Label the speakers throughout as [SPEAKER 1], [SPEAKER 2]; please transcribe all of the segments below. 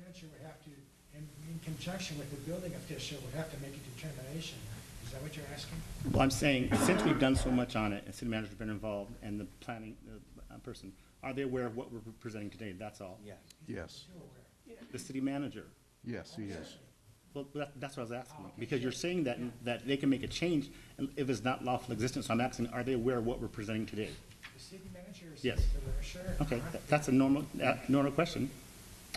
[SPEAKER 1] commission would have to, in in conjunction with the building official, would have to make a determination. Is that what you're asking?
[SPEAKER 2] Well, I'm saying, since we've done so much on it, and city manager's been involved, and the planning uh, person, are they aware of what we're presenting today? That's all. Yeah.
[SPEAKER 3] Yes,
[SPEAKER 1] You're aware.
[SPEAKER 2] The city manager.
[SPEAKER 3] yes, he is.
[SPEAKER 2] Well, that, that's what I was asking, because you're saying that, that they can make a change and if it's not lawful existence. So I'm asking, are they aware of what we're presenting today?
[SPEAKER 1] The city manager is.
[SPEAKER 2] Yes.
[SPEAKER 1] Sure.
[SPEAKER 2] Okay,
[SPEAKER 1] huh?
[SPEAKER 2] that- that's a normal, uh, normal question.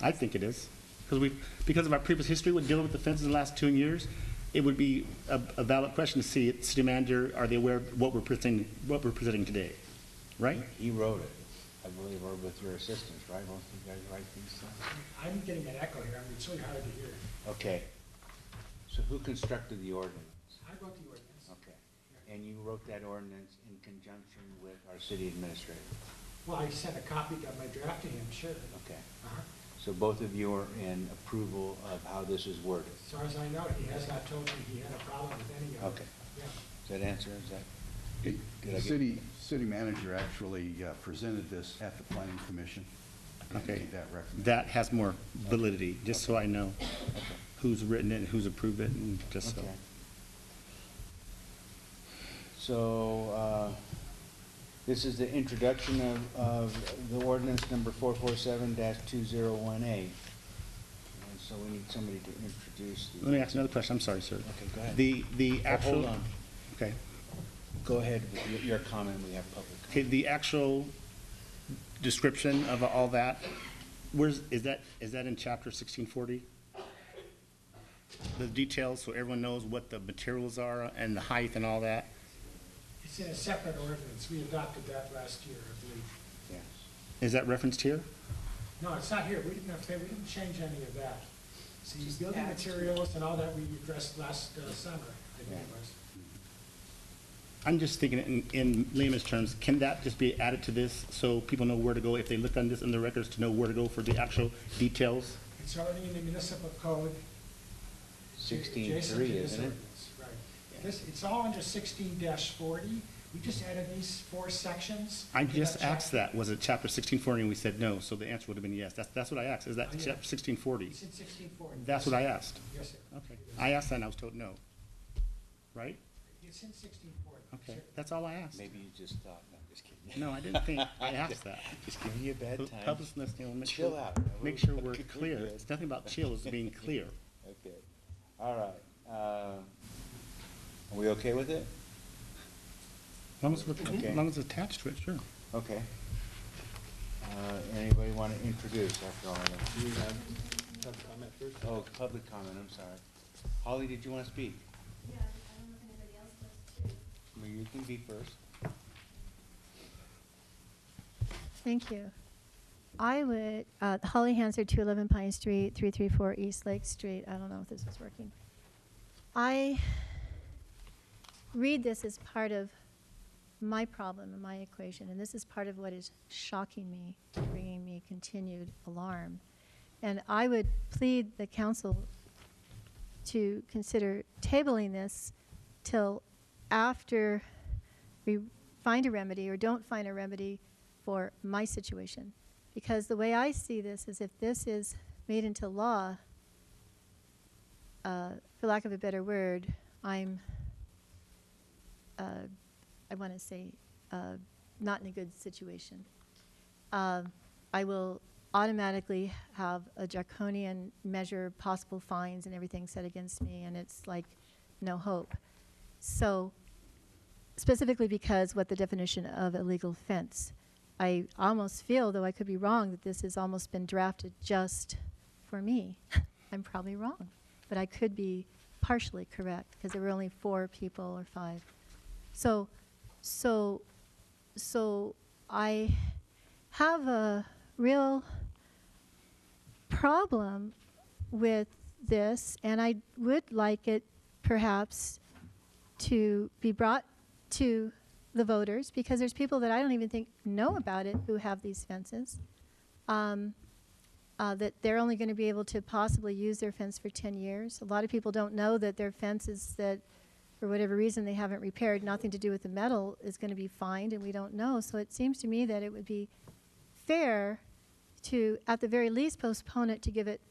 [SPEAKER 2] I think it is. Because we, because of our previous history with dealing with the fences in the last two years, it would be a, a valid question to see, city manager, are they aware of what we're presenting, what we're presenting today? Right?
[SPEAKER 4] He wrote it, I believe, or with your assistance, right? Most of you guys write these things?
[SPEAKER 1] I'm getting an echo here. I mean, it's really hard to hear.
[SPEAKER 4] Okay. So who constructed the ordinance?
[SPEAKER 1] I wrote the ordinance.
[SPEAKER 4] Okay. And you wrote that ordinance in conjunction with our city administrator?
[SPEAKER 1] Well, I sent a copy of my draft to him, sure.
[SPEAKER 4] Okay.
[SPEAKER 1] Uh-huh.
[SPEAKER 4] So both of you are in approval of how this is worded?
[SPEAKER 1] As far as I know, he has not told me he had a problem with any of it.
[SPEAKER 4] Okay.
[SPEAKER 1] Yeah.
[SPEAKER 4] Does that answer, is that?
[SPEAKER 3] The
[SPEAKER 4] Did I get-
[SPEAKER 3] City, city manager actually uh, presented this at the planning commission. and
[SPEAKER 2] Okay.
[SPEAKER 3] made that recommendation.
[SPEAKER 2] That has more validity, just so I know who's written it, and who's approved it, and just so.
[SPEAKER 4] Okay. So, uh, this is the introduction of, of the ordinance number four four seven two zero one eight. And so we need somebody to introduce the.
[SPEAKER 2] Let me ask another question, I'm sorry, sir.
[SPEAKER 4] Okay, go ahead.
[SPEAKER 2] The, the
[SPEAKER 4] Oh,
[SPEAKER 2] actual.
[SPEAKER 4] Hold on,
[SPEAKER 2] Okay.
[SPEAKER 4] go ahead with your- your comment, we have public.
[SPEAKER 2] Okay,
[SPEAKER 4] comment.
[SPEAKER 2] the actual description of all that, where's, is that, is that in chapter sixteen forty? The details, so everyone knows what the materials are and the height and all that?
[SPEAKER 1] It's in a separate ordinance. We adopted that last year, I believe.
[SPEAKER 4] Yes.
[SPEAKER 2] Is that referenced here?
[SPEAKER 1] No, it's not here. We didn't, have- we didn't change any of that. See,
[SPEAKER 5] Just
[SPEAKER 1] building
[SPEAKER 5] add to it.
[SPEAKER 1] materials and all that we addressed last uh, summer, I think it
[SPEAKER 4] Yeah.
[SPEAKER 1] was.
[SPEAKER 2] I'm just thinking in, in layman's terms, can that just be added to this so people know where to go if they look on this in the records to know where to go for the actual details?
[SPEAKER 1] It's already in the municipal code.
[SPEAKER 4] Sixteen
[SPEAKER 1] adjacent to
[SPEAKER 4] three,
[SPEAKER 1] this
[SPEAKER 4] isn't it?
[SPEAKER 1] ordinance, Right. This, it's all under sixteen forty. We just added these four sections.
[SPEAKER 2] I
[SPEAKER 1] to
[SPEAKER 2] just asked
[SPEAKER 1] chapter.
[SPEAKER 2] that, was it chapter sixteen forty and we said no, so the answer would have been yes. That's, that's what I asked, is that
[SPEAKER 1] Oh, yeah.
[SPEAKER 2] chapter sixteen forty?
[SPEAKER 1] It's in sixteen forty.
[SPEAKER 2] That's what I asked.
[SPEAKER 1] Yes, sir.
[SPEAKER 2] Okay, I asked that and I was told no. Right?
[SPEAKER 1] It's in sixteen forty.
[SPEAKER 2] Okay, that's all I asked.
[SPEAKER 4] Maybe you just thought, no, just kidding.
[SPEAKER 2] No, I didn't think, I asked that.
[SPEAKER 4] Just giving you a bad
[SPEAKER 2] Pu-
[SPEAKER 4] time.
[SPEAKER 2] Public listening, we'll make
[SPEAKER 4] Chill
[SPEAKER 2] sure,
[SPEAKER 4] out.
[SPEAKER 2] make sure we're
[SPEAKER 4] We're
[SPEAKER 2] clear.
[SPEAKER 4] good.
[SPEAKER 2] It's nothing about chill, it's being clear.
[SPEAKER 4] Okay, all right, uh, are we okay with it?
[SPEAKER 2] As long as, we're-
[SPEAKER 4] Okay.
[SPEAKER 2] as long as it's attached to it, sure.
[SPEAKER 4] Okay. Uh, Anybody want to introduce after all that?
[SPEAKER 6] Do you have public comment first?
[SPEAKER 4] Oh, public comment, I'm sorry. Holly, did you want to speak?
[SPEAKER 5] Yeah, I don't know if anybody else does too.
[SPEAKER 4] Well, You can be first.
[SPEAKER 7] Thank you. I would, uh, Holly Hanser, 211 Pine Street, 334 East Lake Street. I don't know if this is working. I read this as part of my problem and my equation, and this is part of what is shocking me, bringing me continued alarm. And I would plead the council to consider tabling this till after we find a remedy or don't find a remedy for my situation. Because the way I see this is if this is made into law, uh, for lack of a better word, I'm, uh, I want to say, uh, not in a good situation. Uh, I will automatically have a draconian measure, possible fines and everything set against me, and it's like no hope. So specifically because what the definition of illegal fence, I almost feel, though I could be wrong, that this has almost been drafted just for me. I'm probably wrong, but I could be partially correct because there were only four people or five. So, so, so I have a real problem with this, and I would like it perhaps to be brought to the voters because there's people that I don't even think know about it who have these fences. Um, uh, that they're only going to be able to possibly use their fence for 10 years. A lot of people don't know that their fences that, for whatever reason, they haven't repaired, nothing to do with the metal, is going to be fined, and we don't know. So it seems to me that it would be fair to, at the very least, postpone it to give it